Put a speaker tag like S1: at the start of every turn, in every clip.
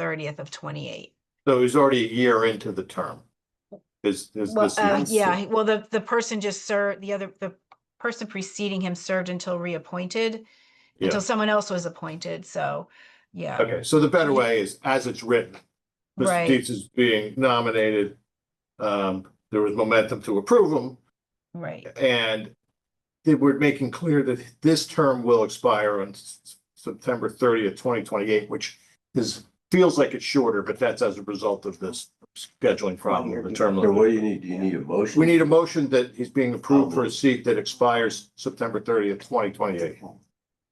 S1: thirtieth of twenty-eight.
S2: So he's already a year into the term. Is, is
S1: Well,
S2: this?
S1: uh,
S2: is-
S1: yeah, well, the, the person just served, the other, the person preceding him served until reappointed,
S2: Yeah.
S1: until someone else was appointed, so, yeah.
S2: Okay, so the better way is as it's written. Mr.
S1: Right.
S2: Dietz is being nominated. Um, there was momentum to approve him
S1: Right,
S2: and they we're making clear that this term will expire on S- September thirtieth, twenty twenty-eight, which is, feels like it's shorter, but that's as a result of this scheduling problem, the term.
S3: So
S2: limit.
S3: what do you need? Um, Do you need a motion?
S2: We need a motion that he's being approved for a seat that expires September thirtieth, twenty twenty-eight.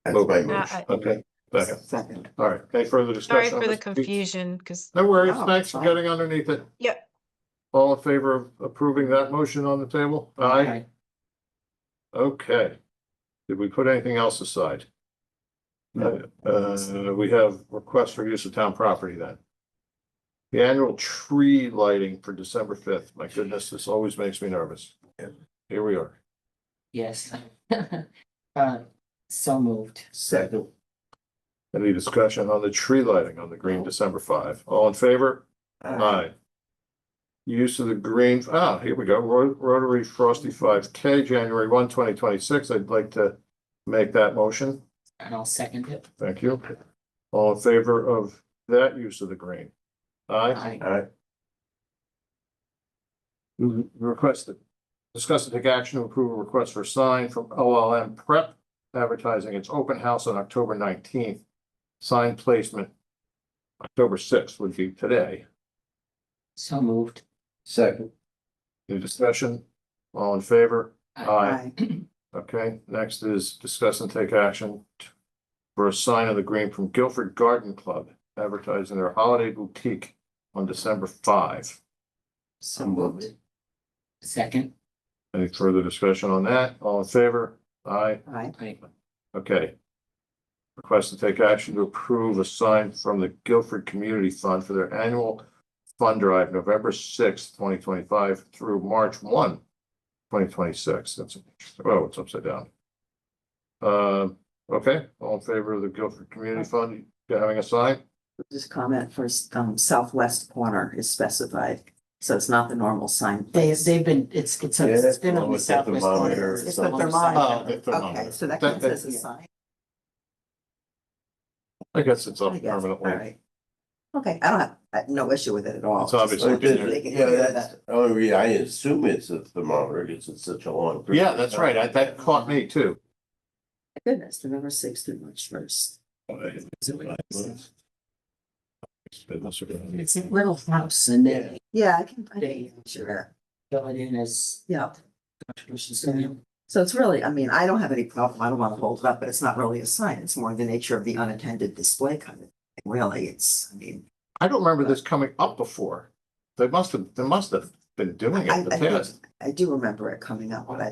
S3: That's my
S2: Uh,
S3: motion.
S1: I-
S2: Okay, second.
S4: Second.
S2: All right, any further
S1: sorry
S2: discussion? on
S1: for the
S2: this?
S1: confusion, because,
S2: No worries,
S4: Oh,
S2: thanks for
S4: fine.
S2: getting underneath it.
S1: yeah,
S2: All in favor of approving that motion on the table? Aye, okay. Did we put anything else aside?
S4: No.
S2: Uh, we have requests for use of town property then. The annual tree lighting for December fifth, my goodness, this always makes me nervous.
S3: Yeah.
S2: Here we are.
S5: Yes. Uh, so moved.
S3: Second.
S2: Any discussion on the tree lighting on the green December five? All in favor? Aye. Use of the green, ah, here we go, Ro- Rotary Frosty five K, January one, twenty twenty-six. I'd like to make that motion.
S5: And I'll second it.
S2: Thank you. All in favor of that use of the green? Aye.
S5: I,
S3: Aye.
S2: Requested. Discuss and take action to approve a request for a sign from OLM Prep advertising its open house on October nineteenth. Sign placement. October sixth would be today.
S5: so moved.
S3: Second.
S2: Any discussion? All in favor?
S5: I-
S2: Aye. Okay, next is discuss and take action t- for a sign of the green from Guilford Garden Club advertising their holiday boutique on December five.
S5: So moved. Second.
S2: Any further discussion on that? All in favor? Aye.
S4: Aye.
S5: I,
S2: Okay. Request to take action to approve a sign from the Guilford Community Fund for their annual fund drive, November sixth, twenty twenty-five through March one, twenty twenty-six. That's, oh, it's upside down. Um, okay, all in favor of the Guilford Community Fund having a sign?
S4: This comment for um southwest corner is specified, so it's not the normal sign.
S5: they, they've been, it's, it's, a- it's been on
S3: Yeah,
S5: the
S3: it's at the
S5: southwest
S3: monitor
S5: corner.
S3: or
S5: It's
S3: something.
S5: on the
S2: Oh,
S5: side.
S2: it's
S4: Okay,
S2: phenomenal.
S4: so that
S2: That-
S4: counts
S2: that-
S4: as a sign.
S2: I guess it's
S4: I
S2: up
S4: guess. All
S2: permanently.
S4: right. Okay, I don't have, I have no issue with it at all.
S2: It's obviously
S4: Just wanted to make
S3: oh,
S4: it
S3: Yeah,
S4: clear
S3: that's, oh, yeah, I assume it's a thermometer because it's such a long. period
S2: Yeah,
S3: of
S2: that's
S3: time.
S2: right. I- That caught me too.
S4: that- Goodness, November sixth through March first.
S5: It's a little house and they
S4: Yeah, I can, I
S5: Day.
S4: can, sure,
S5: fill it in as.
S4: yeah.
S5: contributions.
S4: So it's really, I mean, I don't have any problem, I don't want to hold it up, but it's not really a sign, it's more the nature of the unattended display kind of, thing. really, it's, I mean.
S2: I don't remember this coming up before. They must have, they must have been doing it
S4: I-
S2: in the
S4: I think-
S2: past.
S4: I do remember it coming up, but I. I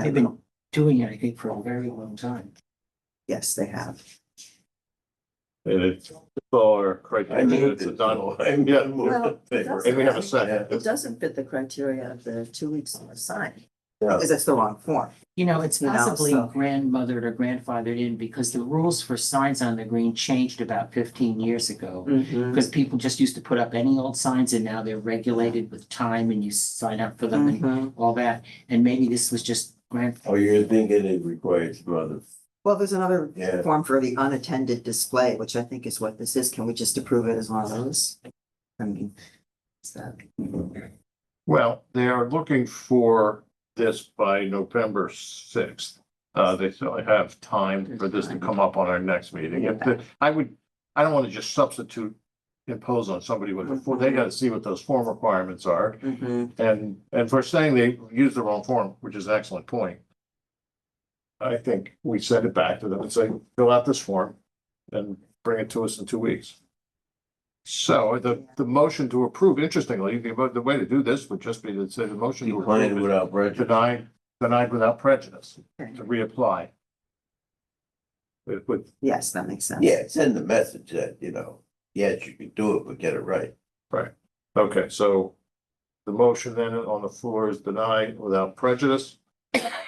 S5: They've
S4: don't
S5: been
S4: know.
S5: doing it, I think, for a very long time.
S4: Yes, they have.
S2: And it's our
S3: I
S2: criteria,
S3: moved
S2: it's a
S3: it.
S2: done,
S3: so I
S2: Yeah.
S3: moved it.
S4: Well,
S2: and we have a
S4: It
S2: second.
S4: doesn't fit the criteria of the two weeks on the sign,
S3: Yeah.
S4: because it's the wrong form.
S5: You know, it's
S4: No,
S5: possibly
S4: so-
S5: grandmothered or grandfathered in because the rules for signs on the green changed about fifteen years ago.
S4: Mm-hmm.
S5: Because people just used to put up any old signs and now they're regulated with time and you sign up for them and
S4: Mhm.
S5: all that. And maybe this was just grand,
S3: Oh, you're thinking it requires mother.
S4: Well, there's another
S3: Yeah.
S4: form for the unattended display, which I think is what this is, can we just approve it as one of those? I mean. is that-
S2: Well, they are looking for this by November sixth. Uh, they certainly have time for this to come up on our next meeting. If, the- I would, I don't want to just substitute, impose on somebody with, a form. they gotta see what those form requirements are.
S4: Mhm.
S2: And, and for saying they used the wrong form, which is an excellent point. I think we send it back to them and say, fill out this form and bring it to us in two weeks. So the, the motion to approve, interestingly, the, mo- the way to do this would just be to say the motion to
S3: Declined
S2: approve
S3: without
S2: is
S3: prejudice.
S2: denied, denied without prejudice, to reapply. With, with,
S4: Yes, that makes sense.
S3: Yeah, send the message that, you know, yes, you can do it, but get it right.
S2: okay, so the motion then on the floor is denied without prejudice.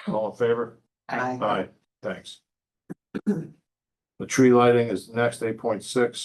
S2: All in favor?
S5: I,
S4: I-
S2: Aye, thanks. The tree lighting is next, eight point six.